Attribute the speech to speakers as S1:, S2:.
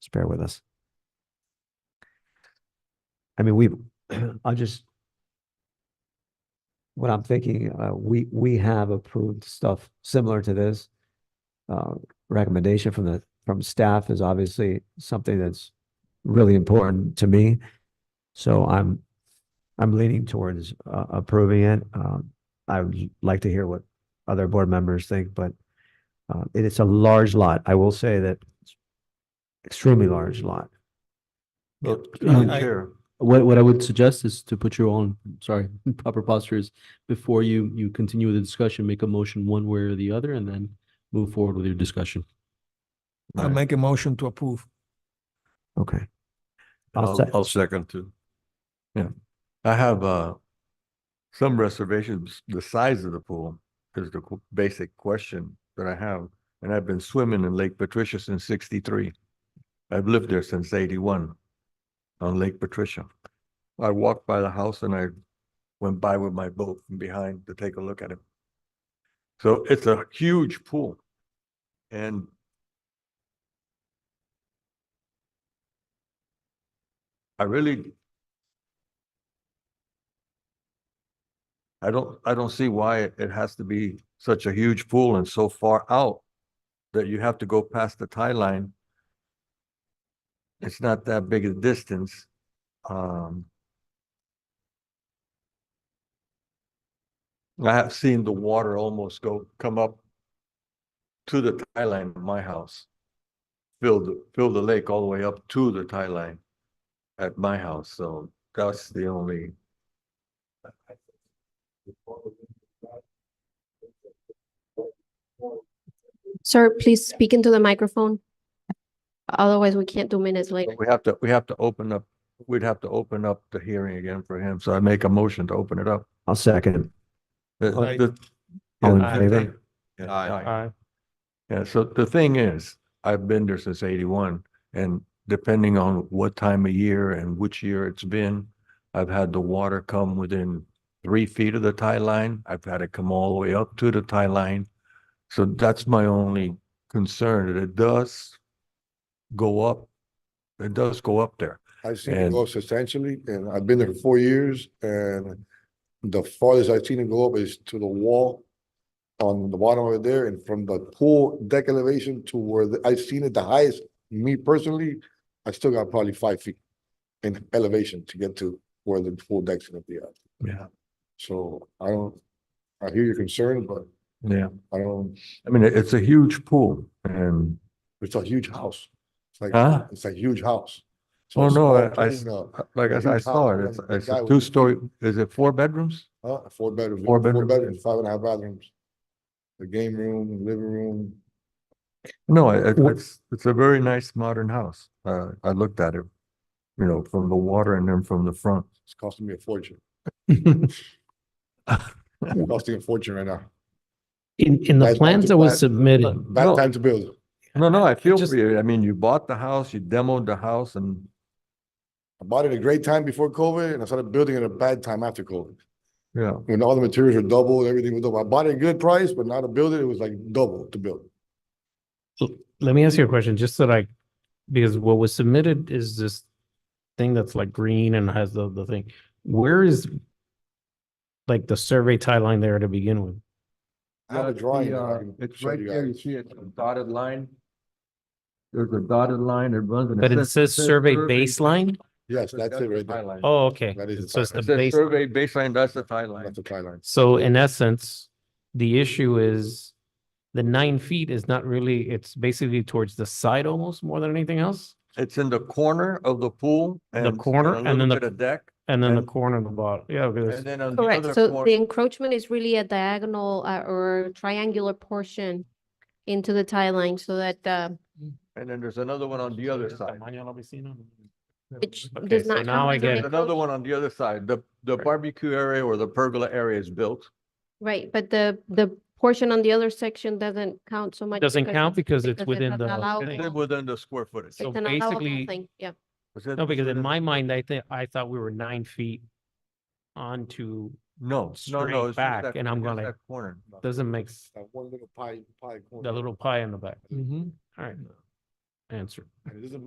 S1: Just bear with us. I mean, we, I'll just. What I'm thinking, uh, we, we have approved stuff similar to this. Uh, recommendation from the, from staff is obviously something that's really important to me. So I'm, I'm leaning towards, uh, approving it. Um, I would like to hear what other board members think, but uh, it is a large lot. I will say that it's extremely large lot.
S2: Well,
S3: Um,
S2: I-
S3: Chair, What, what I would suggest is to put your own, sorry, proper postures before you, you continue the discussion, make a motion one way or the other, and then move forward with your discussion.
S2: I make a motion to approve.
S1: Okay. I'll
S4: I'll,
S1: sec-
S4: I'll second too. Yeah, I have, uh, some reservations, the size of the pool is the qu- basic question that I have. And I've been swimming in Lake Patricia since sixty-three. I've lived there since eighty-one on Lake Patricia. I walked by the house and I went by with my boat from behind to take a look at it. So it's a huge pool. And I really. I don't, I don't see why it it has to be such a huge pool and so far out that you have to go past the tie line. It's not that big a distance. Um. I have seen the water almost go, come up to the tie line of my house. Fill the, fill the lake all the way up to the tie line at my house, so that's the only.
S5: Sir, please speak into the microphone. Otherwise, we can't do minutes later.
S4: We have to, we have to open up, we'd have to open up the hearing again for him, so I make a motion to open it up.
S1: I'll second.
S4: The-
S2: Aye.
S4: the-
S1: All in
S4: Yeah,
S1: favor?
S4: thank- yeah, aye. Yeah, so the thing is, I've been there since eighty-one, and depending on what time of year and which year it's been, I've had the water come within three feet of the tie line. I've had it come all the way up to the tie line. So that's my only concern, that it does go up. It does go up there.
S6: I've seen it
S4: And-
S6: go substantially, and I've been there four years, and the farthest I've seen it go up is to the wall on the bottom over there, and from the pool deck elevation to where the- I've seen it the highest, me personally, I still got probably five feet in elevation to get to where the pool deck's gonna be at.
S4: Yeah.
S6: So I don't, I hear your concern, but
S4: Yeah,
S6: I don't,
S4: I mean, it- it's a huge pool and,
S6: it's a huge house. It's like,
S4: huh?
S6: it's a huge house. So
S4: Oh,
S6: it's
S4: no,
S6: all
S4: I- I,
S6: cleaned up.
S4: like I said, I
S6: huge
S4: saw
S6: house,
S4: it. It's,
S6: and the
S4: it's
S6: guy
S4: a
S6: was-
S4: two-story, is it four bedrooms?
S6: Uh, four bedrooms.
S4: Four bedrooms.
S6: Five and a half bathrooms. The game room, living room,
S4: No, it,
S1: Wh-
S4: it's, it's a very nice modern house. Uh, I looked at it, you know, from the water and then from the front.
S6: it's costing me a fortune. It's Costing a fortune right now.
S3: In, in the
S6: Guys,
S3: plans that was
S6: that-
S3: submitted,
S6: Bad
S4: No.
S6: time to build.
S4: No, no, I feel
S3: just-
S4: for you. I mean, you bought the house, you demoed the house and,
S6: I bought it a great time before COVID and I started building it a bad time after COVID.
S4: you know,
S6: When all the materials were double, and everything was double. I bought it a good price, but now to build it, it was like double to build.
S3: let me ask you a question, just so that I, because what was submitted is this thing that's like green and has the, the thing. Where is like the survey tie line there to begin with?
S6: I have
S4: Yeah,
S6: a
S4: it's
S6: drawing.
S4: the,
S6: that I
S4: uh,
S6: can
S4: It's
S6: show
S4: right
S6: you
S4: there, you
S6: guys.
S4: see it, the dotted line. There's a dotted line, it runs. and
S3: But it says survey baseline?
S6: Yes, that's it right
S4: the tie
S6: there.
S4: line.
S3: Oh, okay.
S6: That is the
S3: So it's
S6: tie
S3: the
S4: It says
S3: base.
S4: survey baseline, that's the tie line.
S6: That's the tie line.
S3: So in essence, the issue is the nine feet is not really, it's basically towards the side almost more than anything else.
S4: It's in the corner of the pool. and- and
S3: corner
S4: a
S3: and
S4: little
S3: then the-
S4: bit of Deck,
S3: And then the
S4: And-
S3: corner of the bottom. Yeah. because-
S4: and then on the
S5: Correct.
S4: other
S5: So
S4: corner-
S5: the encroachment is really a diagonal uh, or triangular portion into the tie line so that uh,
S4: And then there's another one on the other side.
S5: it
S3: Okay,
S5: does
S3: so
S5: not.
S3: now
S5: count
S3: I
S5: as
S3: get
S5: an
S3: it.
S4: There's another
S5: encroach-
S4: one on the other side. The, the barbecue area or the pergola area is built.
S5: Right, but the, the portion on the other section doesn't count so much.
S3: Doesn't
S5: because
S3: count because it's
S5: because it
S3: within
S5: doesn't
S3: the
S5: allow
S3: thing.
S4: It's within the square footage.
S3: so
S5: It's an allowable
S3: basically-
S5: thing, yeah.
S4: Is it-
S3: No, because in
S4: within-
S3: my mind, I think, I thought we were nine feet onto,
S4: No, no,
S3: straight
S4: no. it's just
S3: back,
S4: that-
S3: and I'm
S4: it's
S3: gonna-
S4: that Corner.
S3: doesn't make s-
S6: That one little pie, pie corner.
S3: the little pie in the back.
S4: Mm-hmm.
S3: All right. Answer.
S6: And it doesn't